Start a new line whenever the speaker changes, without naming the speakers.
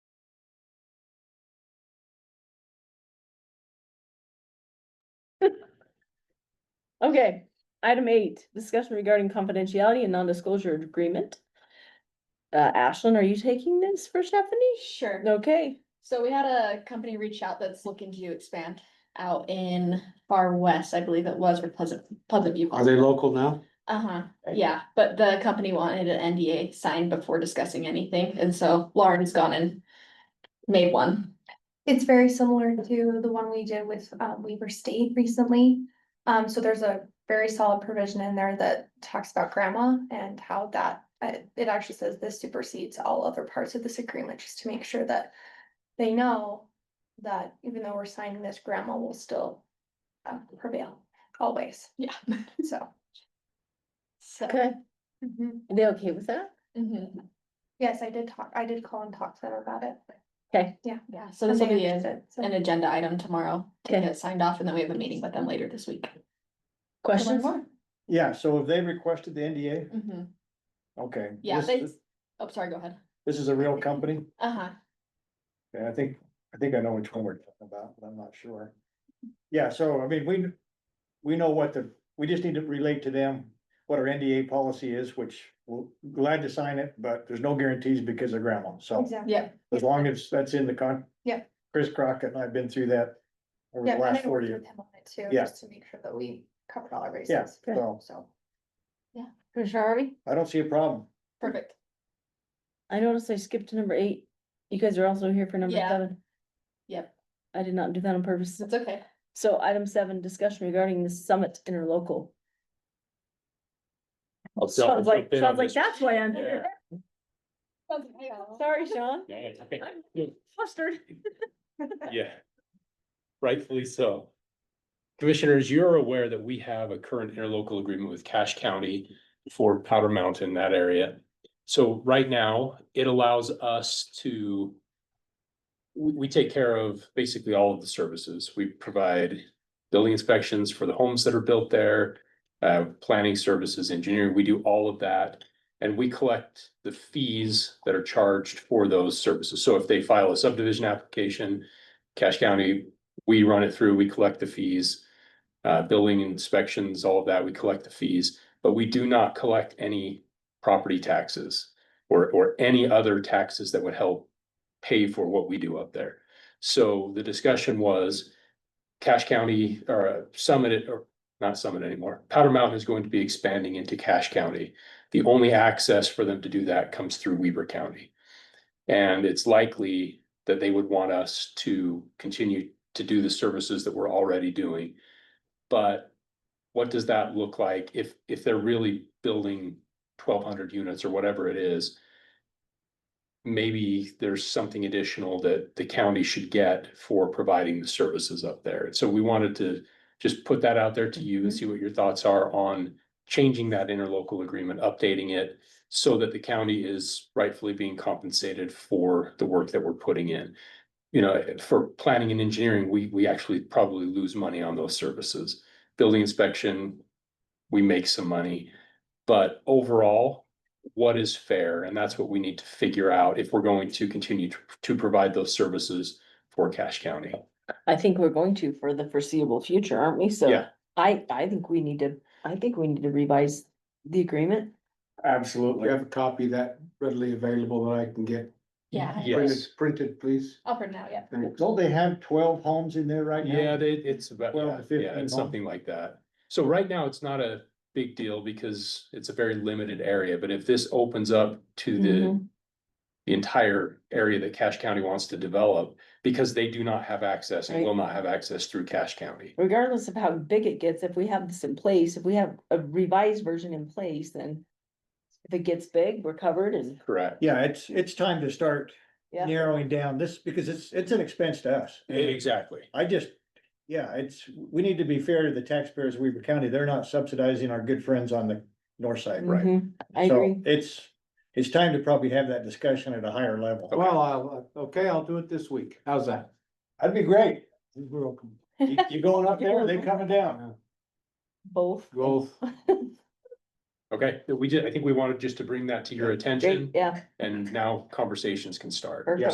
Okay, item eight, discussion regarding confidentiality and non-disclosure agreement. Uh, Ashlyn, are you taking this for Stephanie?
Sure.
Okay,
So we had a company reach out that's looking to expand out in far west, I believe it was, or Pleasant, Pleasant View.
Are they local now?
Uh-huh,
Right.
yeah, but the company wanted an NDA signed before discussing anything, and so Lauren's gone and made one.
It's very similar to the one we did with uh, Weaver State recently. Um, so there's a very solid provision in there that talks about grandma and how that, uh, it actually says this supersedes all other parts of this agreement, just to make sure that they know that even though we're signing this, grandma will still uh, prevail always,
Yeah.
so.
So.
okay,
Mm-hmm.
Mhm.
are they okay with that?
Mhm,
Yes, I did talk, I did call and talk to them about it.
Yeah, so
and
this will
they
be an,
understood, so.
an agenda item tomorrow to
Okay.
get signed off, and then we have a meeting with them later this week. to learn
Questions?
more.
Yeah, so have they requested the NDA?
Mhm,
Okay.
Yeah,
this-
they, oh, sorry, go ahead.
This is a real company?
Uh-huh,
Yeah, I think, I think I know which one we're talking about, but I'm not sure. Yeah, so I mean, we, we know what the, we just need to relate to them what our NDA policy is, which we're glad to sign it, but there's no guarantees because of grandma, so
Exactly.
yeah,
as long as that's in the con.
Yeah.
Chris Crockett and I've been through that over
Yeah,
the
and I
last four
worked
years,
with him on it too,
Yeah.
just to make sure that we covered all our
Yeah,
bases.
Okay.
so
So.
Commissioner Harvey?
I don't see a problem.
perfect.
I noticed I skipped to number eight. You guys are also here for number
Yeah.
seven.
Yep,
I did not do that on purpose.
it's okay.
So item seven, discussion regarding the summit interlocal.
I'll
Sounds
I'll
like,
jump in on
sounds like
this.
that's why I'm here. Sorry, Sean,
Yeah, it's okay.
flustered.
Yeah. Rightfully so. Commissioners, you're aware that we have a current interlocal agreement with Cache County for Powder Mountain, that area. So right now, it allows us to we, we take care of basically all of the services. We provide building inspections for the homes that are built there, uh, planning services, engineering, we do all of that. And we collect the fees that are charged for those services. So if they file a subdivision application, Cache County, we run it through, we collect the fees. Uh, building inspections, all of that, we collect the fees, but we do not collect any property taxes. Or, or any other taxes that would help pay for what we do up there. So the discussion was. Cache County or uh, Summit it- or not Summit anymore, Powder Mountain is going to be expanding into Cache County. The only access for them to do that comes through Weber County. And it's likely that they would want us to continue to do the services that we're already doing. But what does that look like if, if they're really building twelve hundred units or whatever it is? Maybe there's something additional that the county should get for providing the services up there. And So we wanted to just put that out there to you and see what your thoughts are on changing that interlocal agreement, updating it so that the county is rightfully being compensated for the work that we're putting in. You know, for planning and engineering, we, we actually probably lose money on those services. Building inspection, we make some money. But overall, what is fair? And that's what we need to figure out if we're going to continue to, to provide those services for Cache County.
I think we're going to for the foreseeable future, aren't we? So
Yeah.
I, I think we need to, I think we need to revise the agreement.
We
Absolutely.
have a copy that readily available that I can get.
Yeah,
Printed, printed, please.
I'll print it out, yeah.
Thanks.
Don't they have twelve homes in there right now?
Yeah, they, it's about,
Well,
yeah,
the 15
yeah, it's
home.
something like that. So right now, it's not a big deal because it's a very limited area, but if this opens up to the.
Mm-hmm.
The entire area that Cache County wants to develop, because they do not have access and
Right.
will not have access through Cache County.
Regardless of how big it gets, if we have this in place, if we have a revised version in place, then if it gets big, we're covered and
Correct.
Yeah, it's, it's time to start
Yeah.
narrowing down this, because it's, it's an expense to us.
Exactly.
I just, yeah, it's, we need to be fair to the taxpayers of Weaver County, they're not subsidizing our good friends on the north side.
Right.
Mhm, I
So
agree.
It's, it's time to probably have that discussion at a higher level.
Well, I'll, uh, okay, I'll do it this week. How's that?
That'd be great,
We're welcome.
you, you going up there, they coming down,
Both.
Both.
Okay, we did, I think we wanted just to bring that to your attention
Great, yeah.
and now conversations can start.
perfect.